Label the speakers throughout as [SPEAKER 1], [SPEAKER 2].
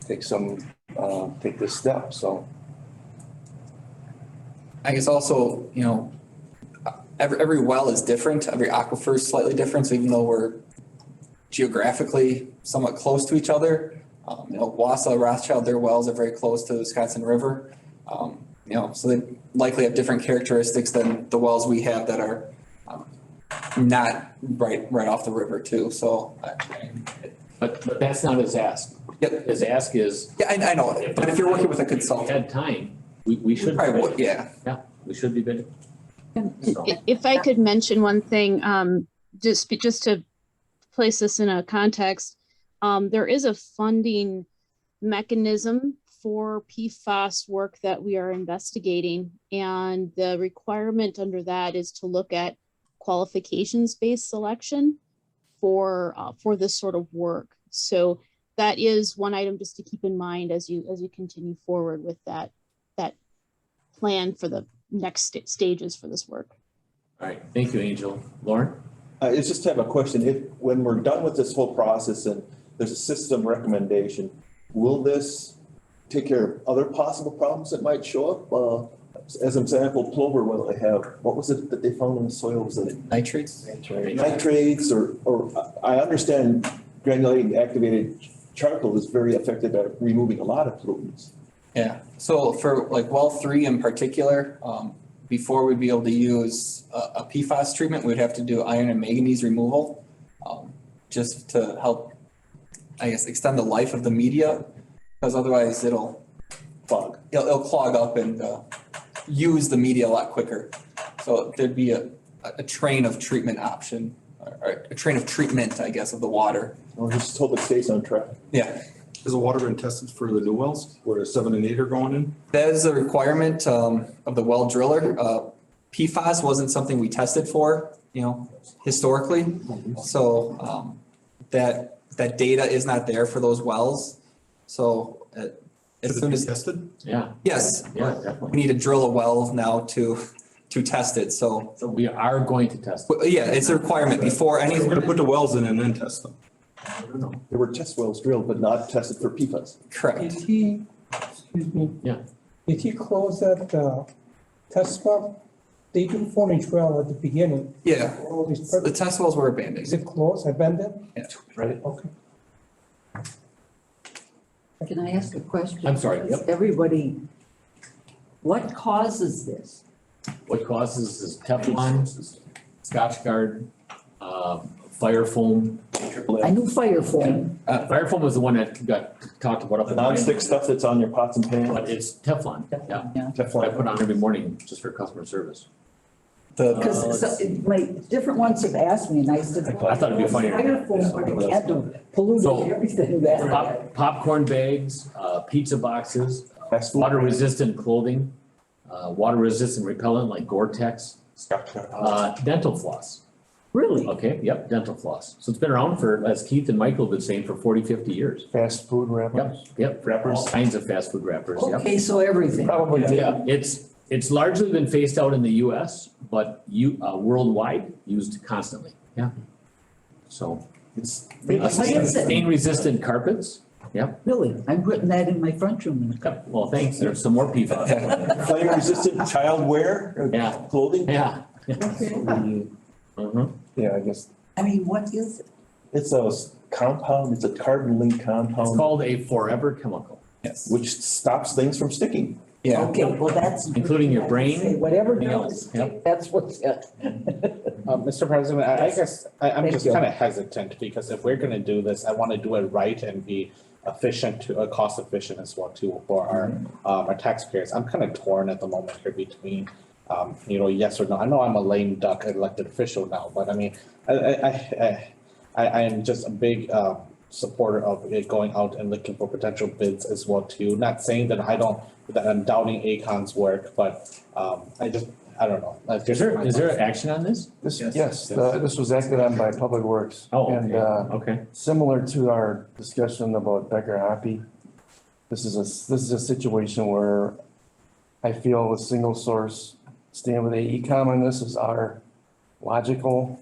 [SPEAKER 1] take some, uh, take this step, so.
[SPEAKER 2] I guess also, you know, every, every well is different, every aquifer is slightly different, so even though we're geographically somewhat close to each other, um, you know, Wassa, Rothschild, their wells are very close to the Wisconsin River. Um, you know, so they likely have different characteristics than the wells we have that are um, not right, right off the river too, so. uh, I-
[SPEAKER 3] But, but that's not his ask.
[SPEAKER 2] Yep.
[SPEAKER 3] His ask is,
[SPEAKER 2] Yeah, I, I know, it, but if you're working with a
[SPEAKER 3] if we
[SPEAKER 2] consultant,
[SPEAKER 3] had time, we, we
[SPEAKER 2] you
[SPEAKER 3] should,
[SPEAKER 2] probably would, yeah.
[SPEAKER 3] yeah, we should be bidding. So-
[SPEAKER 4] I- If I could mention one thing, um, just, be- just to place this in a context, um, there is a funding mechanism for PFAS work that we are investigating. And the requirement under that is to look at qualifications-based selection for, uh, for this sort of work. So that is one item just to keep in mind as you, as you continue forward with that, that plan for the next sta- stages for this work.
[SPEAKER 3] All right, thank you, Angel. Lauren?
[SPEAKER 5] I Uh, it's just have a question. If, when we're done with this whole process and there's a system recommendation, will this take care of other possible problems that might show up? Uh, as an example, plover, what they have, what was it that they found in the soil? Was it
[SPEAKER 2] Nitrates?
[SPEAKER 5] nitrates or, or, I I understand granulated activated charcoal is very effective at removing a lot of pollutants.
[SPEAKER 2] Yeah, so for like well three in particular, um, before we'd be able to use a, a PFAS treatment, we'd have to do iron and manganese removal. Um, just to help, I guess, extend the life of the media, because otherwise it'll,
[SPEAKER 5] Fog.
[SPEAKER 2] it'll, it'll clog up and, uh, use the media a lot quicker. So there'd be a, a a train of treatment option, or- or a train of treatment, I guess, of the water.
[SPEAKER 5] I'll just hope it stays on track.
[SPEAKER 2] Yeah,
[SPEAKER 6] Has the water been tested for the new wells where the seven and eight are going in?
[SPEAKER 2] That is a requirement um, of the well driller. Uh, PFAS wasn't something we tested for, you know, historically. So um, that, that data is not there for those wells. So uh, as
[SPEAKER 6] Has it
[SPEAKER 2] soon
[SPEAKER 6] been
[SPEAKER 2] as,
[SPEAKER 6] tested?
[SPEAKER 3] Yeah,
[SPEAKER 2] yes,
[SPEAKER 3] yeah,
[SPEAKER 2] we
[SPEAKER 3] definitely.
[SPEAKER 2] need to drill a well now to, to test it. So,
[SPEAKER 3] So we are going to test.
[SPEAKER 2] but, yeah, it's a requirement before any,
[SPEAKER 6] We're gonna put the wells in and then test them. I don't know.
[SPEAKER 5] There were test wells drilled, but not tested for PFAS.
[SPEAKER 2] correct.
[SPEAKER 7] Did he, excuse me?
[SPEAKER 3] Yeah.
[SPEAKER 7] Did he close that, uh, test well? They do four inch well at the beginning.
[SPEAKER 2] Yeah,
[SPEAKER 7] All these
[SPEAKER 2] the
[SPEAKER 7] purpose,
[SPEAKER 2] test wells were
[SPEAKER 7] is
[SPEAKER 2] abandoned.
[SPEAKER 7] it closed, abandoned?
[SPEAKER 2] Yeah.
[SPEAKER 3] Right.
[SPEAKER 7] Okay.
[SPEAKER 8] Can I ask a question?
[SPEAKER 3] I'm sorry, yep.
[SPEAKER 8] Everybody, what causes this?
[SPEAKER 3] What causes is Teflon, Scotch guard, uh, fire foam.
[SPEAKER 8] I knew fire foam.
[SPEAKER 3] Uh, fire foam was the one that got talked about up
[SPEAKER 5] The
[SPEAKER 3] in.
[SPEAKER 5] nonstick stuff that's on your pots and pans.
[SPEAKER 3] But it's Teflon, yeah. What I
[SPEAKER 5] Teflon.
[SPEAKER 3] put on every morning just for customer service. Uh,
[SPEAKER 2] The,
[SPEAKER 8] Because so- my, different ones have asked me and I said.
[SPEAKER 3] I thought it'd be funnier.
[SPEAKER 8] Fire foam, but it had to pollute
[SPEAKER 3] So- uh,
[SPEAKER 8] everything that.
[SPEAKER 3] Pop- Popcorn bags, uh, pizza boxes,
[SPEAKER 5] Fast food.
[SPEAKER 3] Water resistant clothing, uh, water resistant repellent like Gore-Tex, uh, dental floss.
[SPEAKER 8] Really?
[SPEAKER 3] Okay, yep, dental floss. So it's been around for, as Keith and Michael have been saying, for 40, 50 years.
[SPEAKER 1] Fast food
[SPEAKER 3] Yep, yep.
[SPEAKER 5] Wrappers.
[SPEAKER 3] All kinds of fast food wrappers, yep.
[SPEAKER 8] Okay, so everything.
[SPEAKER 1] Probably
[SPEAKER 3] Yeah, it's, it's largely been phased out in the US, but you, uh, worldwide, used constantly, yeah. So.
[SPEAKER 5] It's.
[SPEAKER 3] uh,
[SPEAKER 8] Like I said.
[SPEAKER 3] Stain resistant carpets,
[SPEAKER 8] Really? I'm putting that in my front room in a couple.
[SPEAKER 3] Yep, well, thanks, there's some more PFAS,
[SPEAKER 5] Flame resistant child wear? or
[SPEAKER 3] Yeah.
[SPEAKER 5] Clothing?
[SPEAKER 3] yeah. Mhm.
[SPEAKER 1] Yeah, I guess.
[SPEAKER 8] I mean, what is it?
[SPEAKER 5] It's a s- compound, it's a carbon link
[SPEAKER 3] It's
[SPEAKER 5] compound,
[SPEAKER 3] called a forever chemical.
[SPEAKER 2] yes,
[SPEAKER 5] which stops things from sticking.
[SPEAKER 2] yeah.
[SPEAKER 8] Okay, well, that's.
[SPEAKER 3] Including your brain,
[SPEAKER 8] Say Whatever
[SPEAKER 3] everything else,
[SPEAKER 8] does,
[SPEAKER 3] yep.
[SPEAKER 8] that's what's it.
[SPEAKER 9] Uh, Mr. President, I, I guess, I, I'm
[SPEAKER 8] Thank
[SPEAKER 9] just
[SPEAKER 8] you.
[SPEAKER 9] kind of hesitant because if we're gonna do this, I want to do it right and be efficient to, uh, cost efficient as well too for our,
[SPEAKER 8] Mm-hmm.
[SPEAKER 9] um, our taxpayers. I'm kind of torn at the moment here between, um, you know, yes or no. I know I'm a lame duck elected official now, but I mean, I, I, I, I, I am just a big, um, supporter of it going out and looking for potential bids as well too. Not saying that I don't, that I'm doubting Acon's work, but, um, I just, I don't know. Like,
[SPEAKER 3] Is there, is there action on this?
[SPEAKER 1] This,
[SPEAKER 3] Yes.
[SPEAKER 1] yes, uh, this was acted on by Public Works.
[SPEAKER 3] Oh,
[SPEAKER 1] And,
[SPEAKER 3] okay,
[SPEAKER 1] uh,
[SPEAKER 3] okay.
[SPEAKER 1] similar to our discussion about Becker Hoppy, this is a, this is a situation where I feel a single source stand with AECom on this is our logical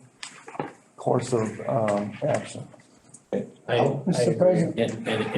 [SPEAKER 1] course of, um, action.
[SPEAKER 3] I- I
[SPEAKER 7] Mr.
[SPEAKER 3] agree.
[SPEAKER 7] President.
[SPEAKER 3] Oh. And, and